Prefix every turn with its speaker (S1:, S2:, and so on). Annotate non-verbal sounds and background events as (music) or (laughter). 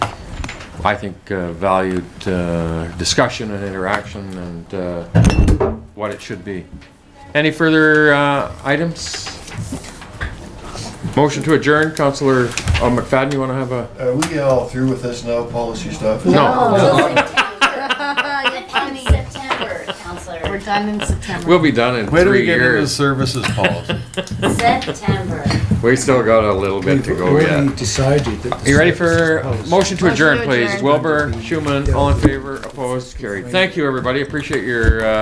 S1: I think, uh, valued uh, discussion and interaction and uh, what it should be. Any further uh, items? Motion to adjourn, Counselor uh, McFadden, you want to have a?
S2: Are we all through with this now, policy stuff?
S1: No,
S3: (laughs)
S4: You're
S3: Oh. done
S4: funny.
S3: in September, Counselor.
S4: We're done in September.
S1: we'll be done in
S5: Where do we
S1: three
S5: get into
S1: years.
S5: services policy?
S3: September.
S1: We still got a little bit to go
S6: We've
S1: yet.
S6: already decided that. the
S1: You ready
S6: service
S1: for
S6: is housed.
S1: motion to
S4: Motion
S1: adjourn,
S4: to
S1: please?
S4: adjourn.
S1: Wilbur, Schumann, all in favor, opposed, carried. Thank you, everybody. Appreciate your uh,